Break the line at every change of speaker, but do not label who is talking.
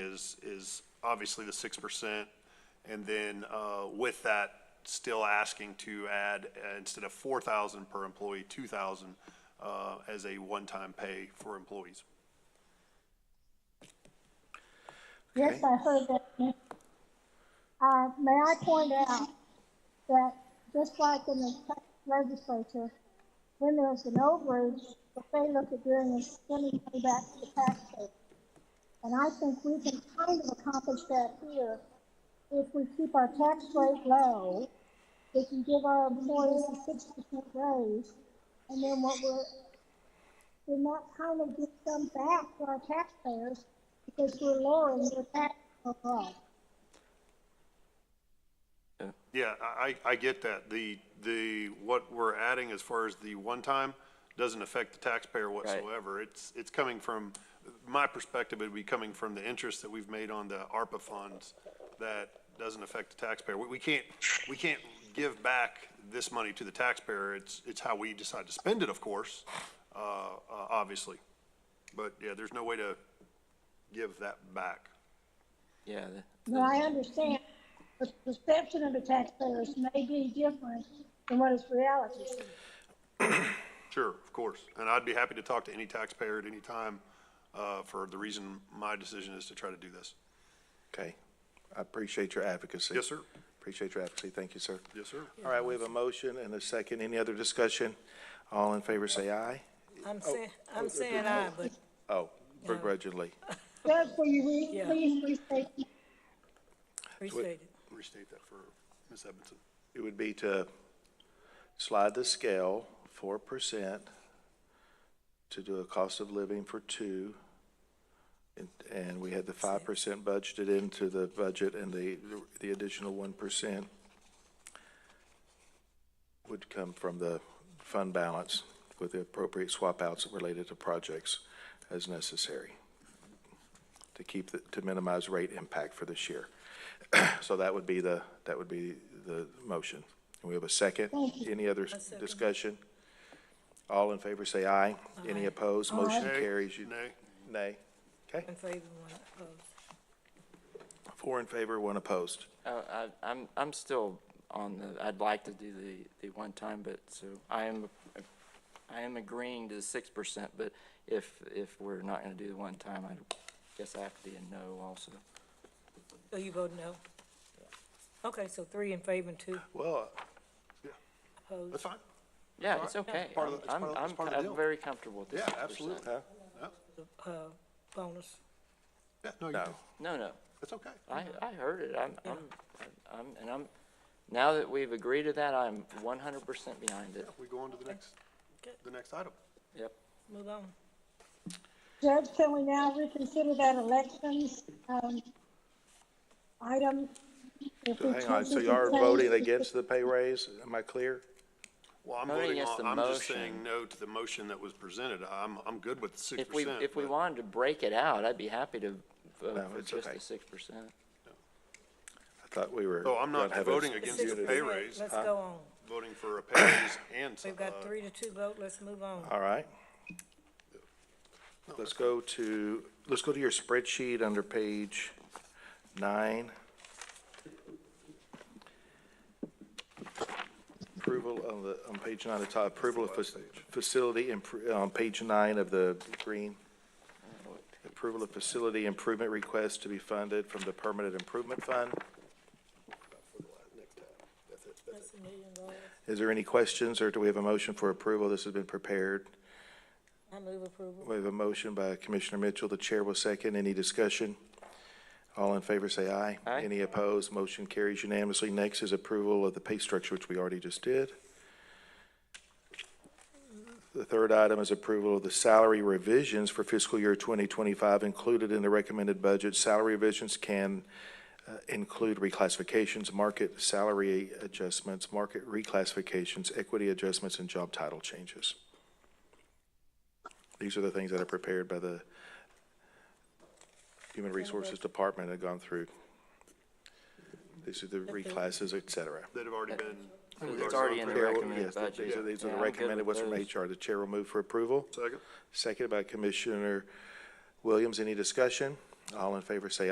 is, is obviously the six percent. And then, uh, with that, still asking to add, uh, instead of four thousand per employee, two thousand, uh, as a one-time pay for employees.
Yes, I heard that. Nick. Uh, may I point out that just like in the Texas legislature, when there's an overage, what they look at doing is sending money back to the taxpayer. And I think we can kind of accomplish that here if we keep our tax rate low, we can give our employees a six percent raise, and then what we're and that kind of gives them back to our taxpayers because we're lowering their tax overall.
Yeah, I, I I get that. The, the, what we're adding as far as the one-time doesn't affect the taxpayer whatsoever. It's, it's coming from, my perspective, it'd be coming from the interest that we've made on the ARPA funds that doesn't affect the taxpayer. We, we can't, we can't give back this money to the taxpayer. It's, it's how we decide to spend it, of course, uh, uh, obviously. But yeah, there's no way to give that back.
Yeah, the-
Now, I understand the perception of the taxpayers may be different than what is reality.
Sure, of course. And I'd be happy to talk to any taxpayer at any time uh, for the reason my decision is to try to do this.
Okay. I appreciate your advocacy.
Yes, sir.
Appreciate your advocacy. Thank you, sir.
Yes, sir.
All right, we have a motion and a second. Any other discussion? All in favor, say aye.
I'm saying, I'm saying aye, but
Oh, begrudgingly.
Doug, will you re-
Yeah.
please restate?
appreciate it.
Restate that for Ms. Edmondson.
It would be to slide the scale four percent to do a cost of living for two. And, and we had the five percent budgeted into the budget and the, the additional one percent would come from the fund balance with the appropriate swap outs related to projects as necessary to keep, the- to minimize rate impact for this year. So that would be the, that would be the motion. And we have a second? Any other discussion? All in favor, say aye. Any opposed? Motion
Nay.
carries. You-
Nay.
Nay. Okay,
In favor, one opposed.
four in favor, one opposed.
uh, I, I'm, I'm still on the, I'd like to do the, the one time, but, so, I am, I am agreeing to the six percent, but if, if we're not gonna do the one time, I guess I have to be a no also.
So Oh, you vote no? Okay, so three in favor and two
Well,
opposed.
uh, That's fine.
Yeah, it's okay.
part of the- it's
I'm,
part of the- it's
I'm,
part of the deal.
I'm very comfortable with the
Yeah,
six percent.
absolutely.
huh?
Uh, bonus.
Yeah, no, you
No.
do.
No, no,
That's okay.
I, I heard it, I'm, I'm, I'm, and I'm, now that we've agreed to that, I'm one hundred percent behind it,
We go on to the next,
Okay.
the next item.
yep.
Move on.
Judge, can we now reconsider that elections, um, item? If we
Hang on,
change
so
it
you are
to say-
voting against the pay raise? Am I clear?
Well, I'm
Voting
voting
yes
on,
to
I'm just
motion.
saying no to the motion that was presented. I'm, I'm good with the six
If we,
percent.
if we wanted to break it out, I'd be happy to
No,
vote for
it's
just
okay.
the six percent.
I thought we were.
So I'm not
gonna have a-
voting against the pay raise, Uh,
Let's go on.
voting for a pay raise and some.
We've got three to two vote, let's move on.
uh,
All right. Let's go to, let's go to your spreadsheet under page nine. Approval on the, on page nine, the top, approval of fac- facility, impr- on page nine of the green. Approval of facility improvement request to be funded from the permanent improvement fund.
That's a million dollars.
Is there any questions, or do we have a motion for approval? This has been prepared.
I move approval.
We have a motion by Commissioner Mitchell. The chair will second. Any discussion? All in favor, say aye.
Aye.
Any opposed? Motion carries unanimously. Next is approval of the pay structure, which we already just did. The third item is approval of the salary revisions for fiscal year 2025 included in the recommended budget. Salary revisions can uh, include reclassifications, market salary adjustments, market reclassifications, equity adjustments, and job title changes. These are the things that are prepared by the Human Resources Department and gone through. These are the reclasses, et cetera.
That have already been.
It's already in the
Chair will-
recommended
yes, th-
budget.
These are, these are
Yeah,
the
I'm good
recommended,
with
what's from
those.
HR. The chair will move for approval.
Second.
Second by Commissioner Williams. Any discussion? All in favor, say